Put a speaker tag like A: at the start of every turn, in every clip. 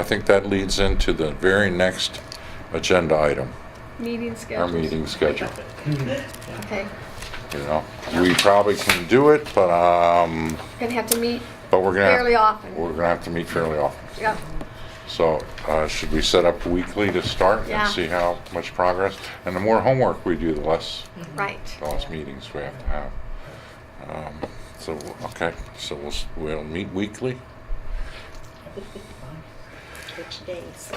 A: I think that leads into the very next agenda item,
B: Meeting schedule.
A: our meeting schedule,
B: Okay.
A: you know? We probably can do it, but, um,
B: We're gonna have to meet
A: but we're gonna. have-
B: fairly often.
A: We're gonna have to meet fairly often.
B: Yeah.
A: So, uh, should we set up weekly to start
B: Yeah.
A: and see how much progress? And the more homework we do, the less,
B: Right.
A: the less meetings we have to have. Um, So, okay, so we'll, s- we'll meet weekly?
C: Which days?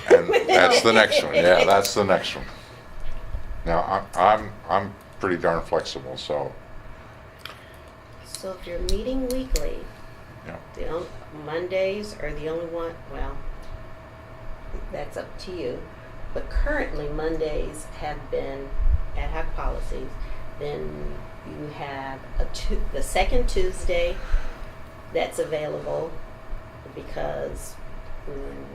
A: And that's the next one, yeah, that's the next one. Now, I- I'm, I'm pretty darn flexible, so,
C: So if you're meeting weekly,
A: yeah.
C: the on- Mondays are the only one, well, that's up to you. But currently Mondays have been ad hoc policies. Then you have a Tu- the second Tuesday that's available because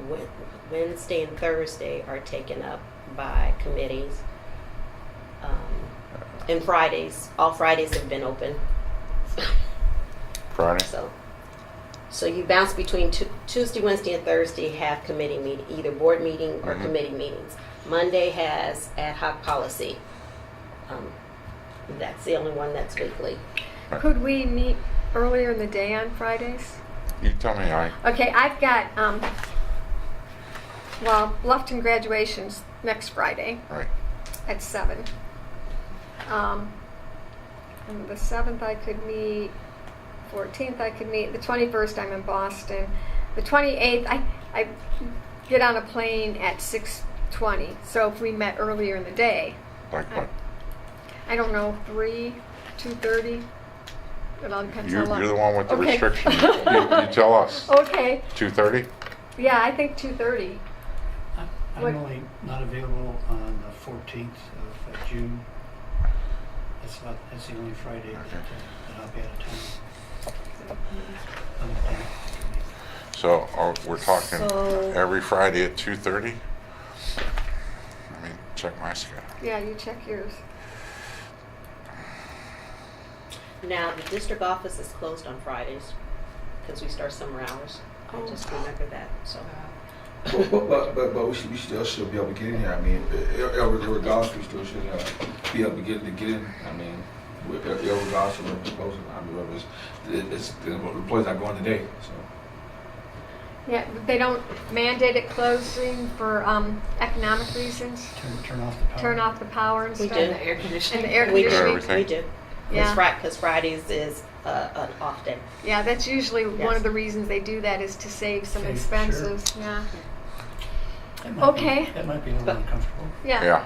C: Wed- Wednesday and Thursday are taken up by committees. Um, and Fridays, all Fridays have been open.
A: Friday?
C: So, so you bounce between Tu- Tuesday, Wednesday, and Thursday have committee meeting, either board meeting or
A: Mhm.
C: committee meetings. Monday has ad hoc policy. Um, that's the only one that's weekly.
B: Could we meet earlier in the day on Fridays?
A: You tell me, I,
B: Okay, I've got, um, well, Bluffton graduation's next Friday
A: right,
B: at seven. Um, and the seventh I could meet, fourteenth I could meet, the twenty-first I'm in Boston. The twenty-eighth, I, I get on a plane at six twenty, so if we met earlier in the day,
A: like what?
B: I don't know, three, two thirty. It all depends
A: You-
B: on lunch.
A: You're the one with the
B: Okay.
A: restriction. You you tell us,
B: Okay,
A: 2:30?
B: yeah, I think two thirty.
D: I'm
B: What-
D: I'm only not available on the fourteenth of uh, June. That's about, that's the only Friday that, uh, that I'll be out of town. Other than that, I can make it.
A: So are- we're talking
C: So-
A: every Friday at 2:30? Let me check my schedule.
B: Yeah, you check yours.
C: Now, the district office is closed on Fridays because we start summer hours. I just remember that, so.
E: But, but, but, but we, should, we still should be able to get in here. I mean, ir- ir- irregardless, we still should uh, be able to get, to get in. I mean, we- ir- irregardless of what we're proposing, I mean, whether it's, it's, the employees not going today, so.
B: Yeah, but they don't mandate it closing for, um, economic reasons,
D: Turn, turn off the power.
B: turn off the power and
C: We
B: stuff.
C: do.
F: air conditioning.
B: And the air
C: We
B: conditioning.
C: do,
A: Everything.
C: we do.
B: Yeah.
C: Because Fridays is uh, an off day.
B: Yeah, that's usually one of
C: Yes.
B: the reasons they do that is to save some
D: Save,
B: expenses, yeah.
D: That might be-
B: Okay.
D: That might be a little uncomfortable.
B: Yeah.
A: Yeah,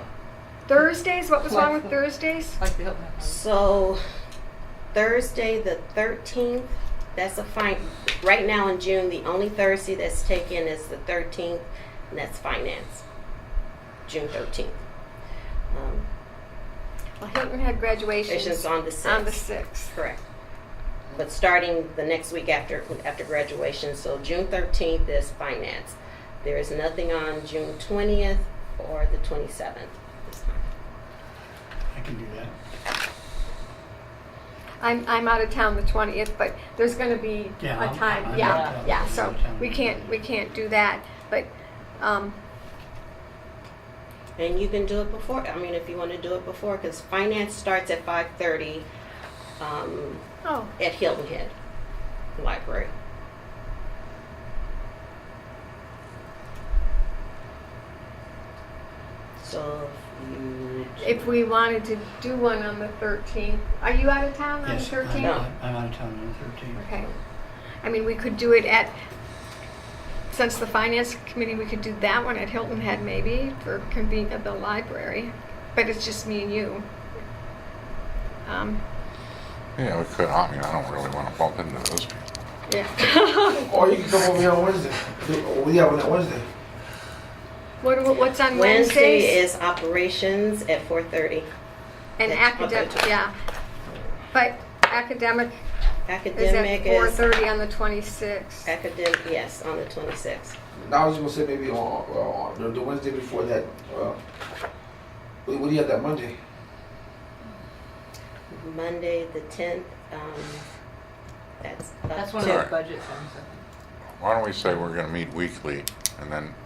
B: Thursdays, what was wrong with
F: Flexible.
B: Thursdays?
F: Like the Hilton.
C: So Thursday the thirteenth, that's a fine, right now in June, the only Thursday that's taken is the thirteenth, and that's finance. June thirteenth. Um,
B: Well, Hilton had
C: it's
B: graduations
C: just on the
B: on the
C: sixth,
B: sixth.
C: correct. But starting the next week after, after graduation, so June thirteenth is finance. There is nothing on June twentieth or the twenty-seventh.
D: I can do that.
B: I'm, I'm out of town the twentieth, but there's gonna be
D: Yeah,
B: a
D: I'm-
B: time,
D: I'm
C: out of
B: yeah,
D: town.
B: yeah,
D: I'm
B: so
D: out of town.
B: we can't, we can't do that, but, um,
C: And you can do it before, I mean, if you want to do it before, because finance starts at five thirty. Um,
B: oh,
C: at Hilton Head Library. So if you.
B: if we wanted to do one on the thirteenth, are you out of town on the
D: Yes, I'm,
B: thirteenth?
D: I'm I'm out of town on the thirteenth.
B: Okay. I mean, we could do it at, since the finance committee, we could do that one at Hilton Head maybe for convene at the library. But it's just me and you. Um,
A: yeah, we could, I mean, I don't really want to bump into those people.
B: yeah.
E: Or you can come over here on Wednesday. We have one on Wednesday.
B: What, what- what's on
C: Wednesday
B: Wednesdays?
C: is operations at four thirty.
B: And academic, yeah. But academic is at
C: Academic
B: four
C: is,
B: thirty on the twenty-sixth.
C: academic, yes, on the twenty-sixth.
E: Now, I was gonna say maybe on, on the- the Wednesday before that, uh, what what do you have that Monday?
C: Monday, the tenth, um, that's up
F: That's one of
C: to-
A: Sorry.
F: those budget things. I think.
A: why don't we say we're gonna meet weekly, and then